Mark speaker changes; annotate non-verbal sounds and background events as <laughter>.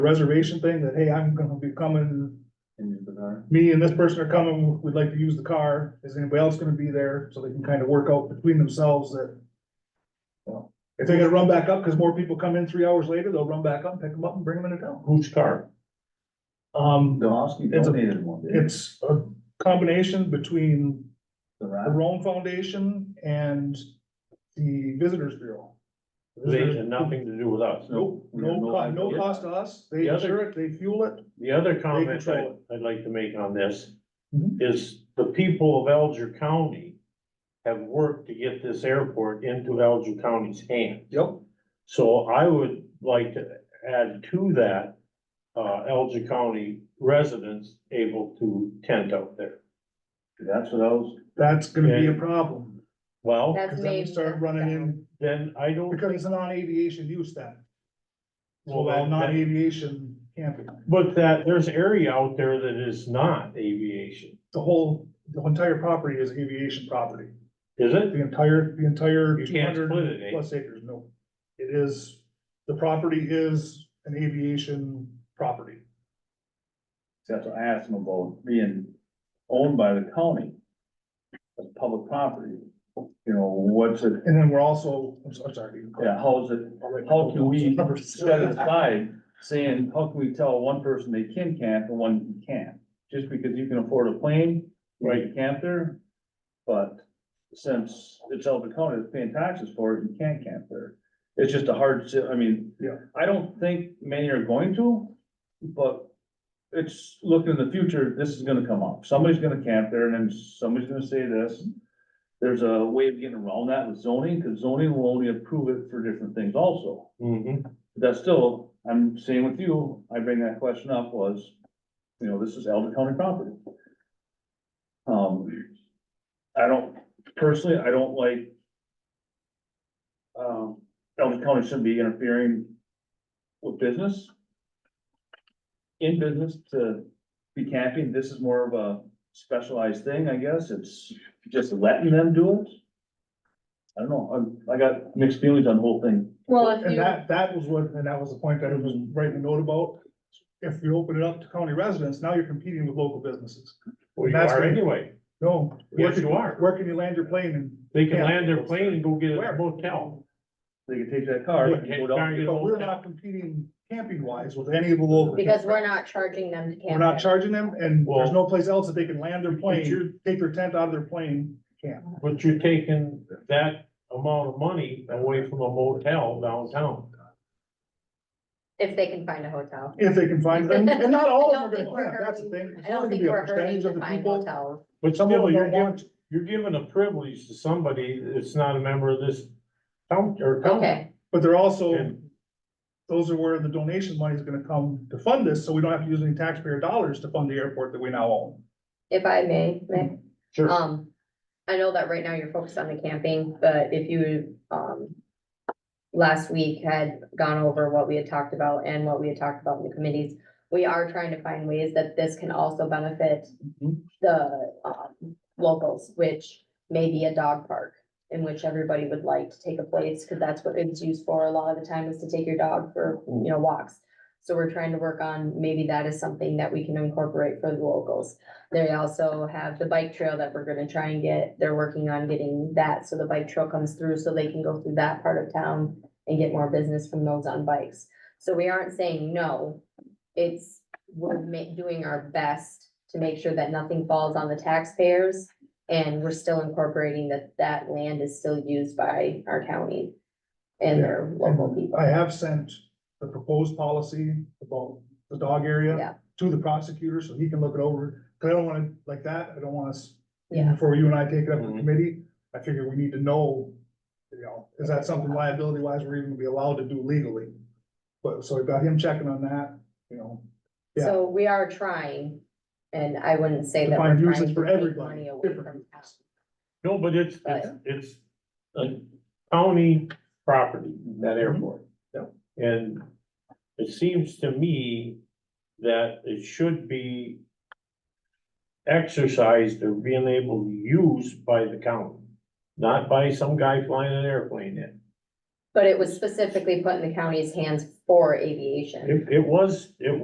Speaker 1: reservation thing that, hey, I'm gonna be coming,
Speaker 2: in the car.
Speaker 1: me and this person are coming, we'd like to use the car, is anybody else gonna be there? So they can kind of work out between themselves that. well, If they're gonna run back up, cause more people come in three hours later, they'll run back up, pick them up and bring them in a town.
Speaker 3: Whose car?
Speaker 1: Um,
Speaker 2: Domowski
Speaker 1: It's a-
Speaker 2: donated one, didn't he?
Speaker 1: it's a combination between
Speaker 2: The
Speaker 1: the
Speaker 2: Ron-
Speaker 1: Rome Foundation and the Visitors Bureau.
Speaker 3: They had nothing to do with us.
Speaker 1: Nope,
Speaker 2: We have
Speaker 1: no,
Speaker 2: no
Speaker 1: co- no
Speaker 2: idea.
Speaker 1: cost to us, they
Speaker 3: The other-
Speaker 1: insure it, they fuel it,
Speaker 3: The other comment I,
Speaker 1: control
Speaker 3: I'd like to make on this
Speaker 1: Mhm.
Speaker 3: is the people of Alger County have worked to get this airport into Alger County's hands.
Speaker 1: yep,
Speaker 3: So I would like to add to that, uh, Alger County residents able to tent out there.
Speaker 2: That's what I was,
Speaker 1: that's gonna be a
Speaker 3: Yeah.
Speaker 1: problem.
Speaker 3: Well,
Speaker 4: That's
Speaker 1: Cause then we
Speaker 4: maybe
Speaker 1: start
Speaker 4: that's
Speaker 1: running
Speaker 4: down.
Speaker 1: in,
Speaker 3: then I don't,
Speaker 1: because it's a non-aviation use then.
Speaker 3: Well,
Speaker 1: Well,
Speaker 3: that-
Speaker 1: non-aviation camping,
Speaker 3: but that, there's area out there that is not aviation,
Speaker 1: the whole, the entire property is aviation property,
Speaker 3: is it?
Speaker 1: the entire, the entire
Speaker 3: You
Speaker 1: two
Speaker 3: can't split
Speaker 1: hundred
Speaker 3: it, eh?
Speaker 1: plus acres, no. It is, the property is an aviation property,
Speaker 2: that's what I asked him about being owned by the county. As public property, you know, what's it,
Speaker 1: and then we're also, I'm so- I'm sorry.
Speaker 2: yeah, how's it, how can we set it aside, saying, how can we tell one person they can camp and one can't? Just because you can afford a plane, right, you camp there, but since it's Elder County that's paying taxes for it, you can't camp there. It's just a hard, si- I mean,
Speaker 1: Yeah.
Speaker 2: I don't think many are going to, but it's, looking in the future, this is gonna come up. Somebody's gonna camp there and then somebody's gonna say this. There's a way of getting around that with zoning, cause zoning will only approve it for different things also.
Speaker 3: Mhm.
Speaker 2: That's still, I'm saying with you, I bring that question up was, you know, this is Elder County property. Um, I don't, personally, I don't like. Um, Elder County shouldn't be interfering with business. In business to be camping, this is more of a specialized thing, I guess, it's just letting them do it. I don't know, I, I got mixed feelings on the whole thing,
Speaker 4: Well, if
Speaker 1: And
Speaker 4: you,
Speaker 1: that, that was what, and that was the point that I was
Speaker 3: Mm-hmm.
Speaker 1: writing a note about. If you open it up to county residents, now you're competing with local businesses.
Speaker 3: Well, you
Speaker 1: That's
Speaker 3: are
Speaker 1: what-
Speaker 3: anyway,
Speaker 1: No. where
Speaker 3: yes,
Speaker 1: can-
Speaker 3: you are.
Speaker 1: Where can you land your plane and?
Speaker 3: They can
Speaker 1: Yeah.
Speaker 3: land their plane and go get a
Speaker 1: Where?
Speaker 3: hotel.
Speaker 2: they can take that car. and go down.
Speaker 3: Target
Speaker 1: But we're
Speaker 3: hotel.
Speaker 1: not competing camping wise with any of the local.
Speaker 4: because we're not charging them to
Speaker 1: We're
Speaker 4: camp
Speaker 1: not
Speaker 4: there.
Speaker 1: charging them and there's
Speaker 3: Well-
Speaker 1: no place else that they can land their
Speaker 3: But
Speaker 1: plane,
Speaker 3: you're,
Speaker 1: take their tent out of their plane, camp.
Speaker 3: but you're taking that amount of money away from a motel downtown.
Speaker 4: If they can find a hotel.
Speaker 1: If they can
Speaker 4: <laughs>
Speaker 1: find them, and not all of
Speaker 4: I don't
Speaker 1: them
Speaker 4: think
Speaker 1: are gonna camp,
Speaker 4: we're
Speaker 1: that's the
Speaker 4: hurting-
Speaker 1: thing.
Speaker 4: I don't think we're hurting to find hotels.
Speaker 3: But
Speaker 1: Some of
Speaker 3: still,
Speaker 1: them
Speaker 3: you're
Speaker 1: don't
Speaker 3: giving,
Speaker 1: want, to.
Speaker 3: you're giving a privilege to somebody that's not a member of this town or county.
Speaker 4: Okay,
Speaker 1: but they're also,
Speaker 3: And
Speaker 1: those are where the donation money is gonna come to fund this, so we don't have to use any taxpayer dollars to fund the airport that we now own.
Speaker 4: if I may, Nick,
Speaker 3: Sure,
Speaker 4: um, I know that right now you're focused on the camping, but if you, um, last week had gone over what we had talked about and what we had talked about in the committees, we are trying to find ways that this can also benefit the um, locals, which may be a dog park in which everybody would like to take a place, because that's what it's used for a lot of the time is to take your dog for, you know, walks. So we're trying to work on, maybe that is something that we can incorporate for the locals. They also have the bike trail that we're gonna try and get, they're working on getting that, so the bike trail comes through, so they can go through that part of town and get more business from those on bikes. So we aren't saying no, it's, we're ma- doing our best to make sure that nothing falls on the taxpayers. And we're still incorporating that that land is still used by our county and their local people.
Speaker 1: I have sent the proposed policy about the dog
Speaker 4: Yeah.
Speaker 1: area to the prosecutor, so he can look it over, cause I don't wanna, like that, I don't wanna s-
Speaker 4: Yeah,
Speaker 1: before you and I take it up in
Speaker 3: Mhm.
Speaker 1: committee, I figure we need to know, you know, is that something liability wise we're even gonna be allowed to do legally? But, so I got him checking on that, you know, Yeah.
Speaker 4: so we are trying, and I wouldn't say
Speaker 1: To
Speaker 4: that we're
Speaker 1: find
Speaker 4: trying
Speaker 1: uses
Speaker 4: to
Speaker 1: for
Speaker 4: take
Speaker 1: everybody,
Speaker 4: money away
Speaker 1: different
Speaker 4: from.
Speaker 1: uses.
Speaker 3: no, but it's, it's, it's a county property, that airport.
Speaker 1: Yeah.
Speaker 3: And it seems to me that it should be exercised or being able to use by the county, not by some guy flying an airplane in.
Speaker 4: But it was specifically put in the county's hands for aviation.
Speaker 3: It, it was, it